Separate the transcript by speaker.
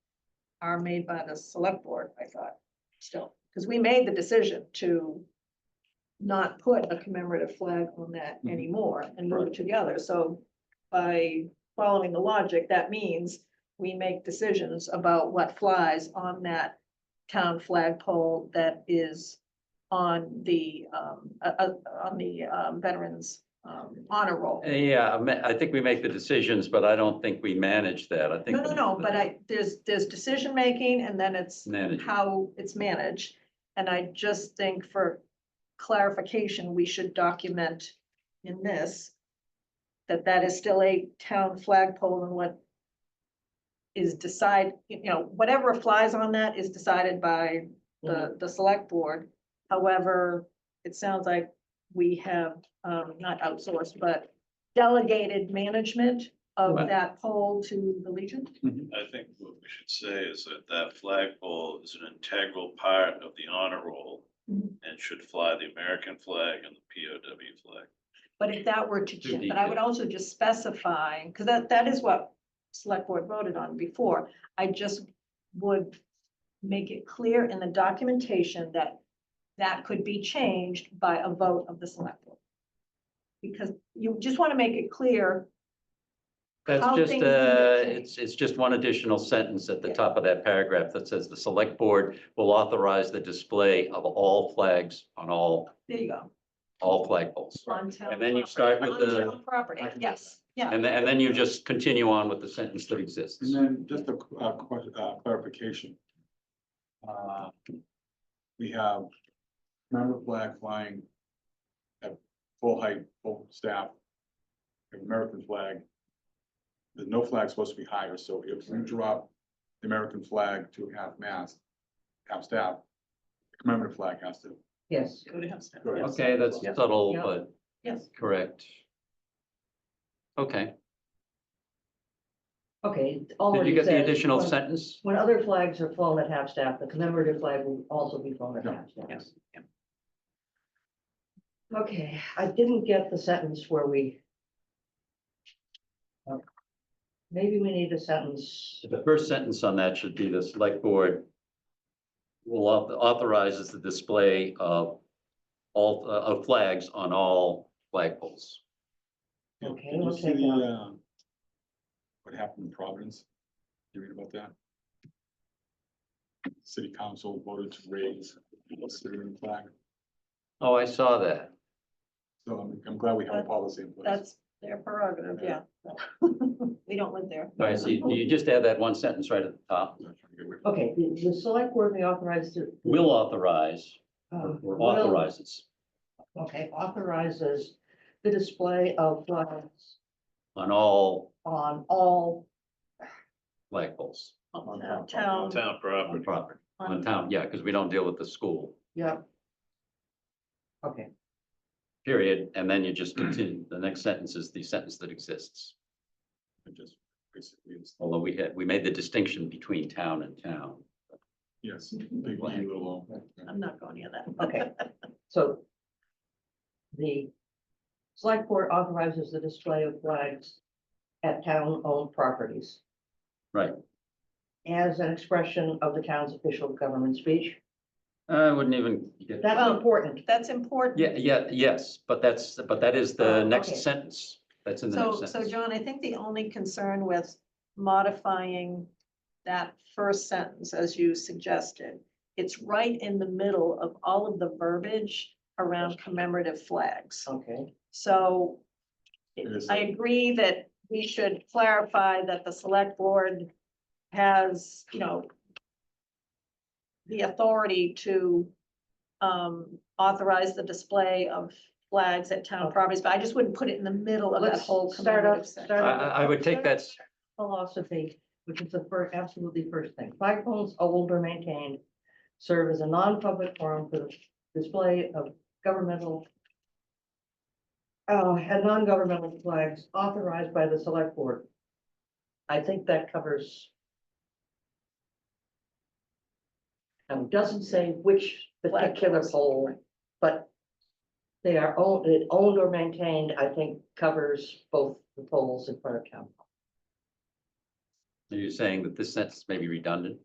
Speaker 1: are made by the select board, I thought, still, because we made the decision to not put a commemorative flag on that
Speaker 2: Mhm.
Speaker 1: anymore and move
Speaker 2: Right.
Speaker 1: it to the other. So by following the logic, that means we make decisions about what flies on that town flagpole that is on the, um, uh, uh, on the, um, veterans, um, honor roll.
Speaker 2: Yeah, I ma- I think we make the decisions, but I don't think we manage that. I think.
Speaker 1: No, no, no, but I, there's, there's decision-making and then it's
Speaker 2: Manage.
Speaker 1: how it's managed. And I just think for clarification, we should document in this that that is still a town flagpole and what is decide, you know, whatever flies on that is decided by the, the select board. However, it sounds like we have, um, not outsourced, but delegated management of
Speaker 2: Right.
Speaker 1: that pole to the Legion.
Speaker 3: I think what we should say is that that flagpole is an integral part of the honor roll
Speaker 1: Mhm.
Speaker 3: and should fly the American flag and the POW flag.
Speaker 1: But if that were to,
Speaker 2: Too
Speaker 1: ch- but I would
Speaker 2: detailed.
Speaker 1: also just specify, because that, that is what select board voted on before. I just would make it clear in the documentation that that could be changed by a vote of the select board. Because you just want to make it clear, how
Speaker 2: That's just,
Speaker 1: things
Speaker 2: uh,
Speaker 1: can get
Speaker 2: it's, it's just one additional sentence at the
Speaker 1: Yeah.
Speaker 2: top of that paragraph that says the select board will authorize the display of all flags on all,
Speaker 1: there you go.
Speaker 2: all flagpoles.
Speaker 1: on town
Speaker 2: And then you
Speaker 1: property,
Speaker 2: start with
Speaker 1: on
Speaker 2: the-
Speaker 1: town Property,
Speaker 4: I can do
Speaker 1: yes, yeah,
Speaker 2: And then, and then you just continue on with the sentence that exists.
Speaker 4: And then just a qu- uh, que- uh, clarification. Uh, We have member flag flying at full height, full staff, American flag. There's no flag supposed to be higher, so if we drop the American flag to half mast, half staff, the commemorative flag has to.
Speaker 5: Yes,
Speaker 1: go to him, Stan.
Speaker 4: Go to him.
Speaker 1: Yes,
Speaker 2: Okay, that's
Speaker 4: Yeah.
Speaker 2: subtle,
Speaker 5: Yeah.
Speaker 2: but
Speaker 1: yes,
Speaker 2: correct. Okay,
Speaker 5: okay. all
Speaker 2: did
Speaker 5: it
Speaker 2: you get the
Speaker 5: says,
Speaker 2: additional
Speaker 5: when-
Speaker 2: sentence?
Speaker 5: When other flags are flown at half-staff, the commemorative flag will also be flown at
Speaker 4: Yeah.
Speaker 5: half-staff. Okay, I didn't get the sentence where we. Oh, Maybe we need a sentence,
Speaker 2: The first sentence on that should be the select board will auth- authorizes the display of all, uh, of flags on all flagpoles.
Speaker 5: Okay,
Speaker 4: Did you
Speaker 5: we'll
Speaker 4: see
Speaker 5: take
Speaker 4: the,
Speaker 5: that.
Speaker 4: uh, What happened in Providence? You read about that? City council voted to raise the Syrian flag,
Speaker 2: Oh, I saw that.
Speaker 4: so I'm, I'm glad we have a policy in place.
Speaker 1: that's their prerogative, yeah. We don't live there.
Speaker 2: All right, so you you just add that one sentence right at the top.
Speaker 4: I'm not trying to get away from-
Speaker 5: okay, the, the select board may authorize to.
Speaker 2: Will authorize
Speaker 5: um,
Speaker 2: or
Speaker 5: will-
Speaker 2: authorizes
Speaker 5: Okay, authorizes the display of flags
Speaker 2: on all
Speaker 5: on all,
Speaker 2: flagpoles
Speaker 1: On
Speaker 4: town- on
Speaker 1: Town,
Speaker 3: Town
Speaker 2: on
Speaker 3: property.
Speaker 2: property, on town, yeah, because we don't deal with the school,
Speaker 5: yeah. Okay.
Speaker 2: period. And then you just continue. The next sentence is the sentence that exists.
Speaker 4: It just basically is-
Speaker 2: Although we had, we made the distinction between town and town.
Speaker 4: Yes, big E, little O.
Speaker 1: I'm not going near that.
Speaker 5: Okay, so the select board authorizes the display of flags at town-owned properties.
Speaker 2: Right.
Speaker 5: As an expression of the town's official government speech.
Speaker 2: I wouldn't even get,
Speaker 5: That's
Speaker 1: Well-
Speaker 5: important.
Speaker 1: That's important.
Speaker 2: yeah, yeah, yes, but that's, but that is the
Speaker 5: Oh,
Speaker 2: next
Speaker 5: okay.
Speaker 2: sentence. That's in the
Speaker 1: So,
Speaker 2: next
Speaker 1: so
Speaker 2: sentence.
Speaker 1: John, I think the only concern with modifying that first sentence, as you suggested, it's right in the middle of all of the verbiage around commemorative flags.
Speaker 5: Okay,
Speaker 1: So
Speaker 4: It is.
Speaker 1: I agree that we should clarify that the select board has, you know, the authority to um, authorize the display of flags at town properties, but I just wouldn't put it in the middle of that
Speaker 5: Let's
Speaker 1: whole
Speaker 5: start up-
Speaker 1: commemorative section.
Speaker 2: I,
Speaker 5: start-
Speaker 2: I I would take that, s-
Speaker 5: philosophy, which is the first, absolutely first thing. Flagpoles owned or maintained serve as a non-public forum for the display of governmental uh, and non-governmental flags authorized by the select board. I think that covers. Um, doesn't say which particular
Speaker 1: Flagpoles.
Speaker 5: pole, but they are owned, it owned or maintained, I think covers both the poles in front of town.
Speaker 2: are you saying that this sentence may be redundant?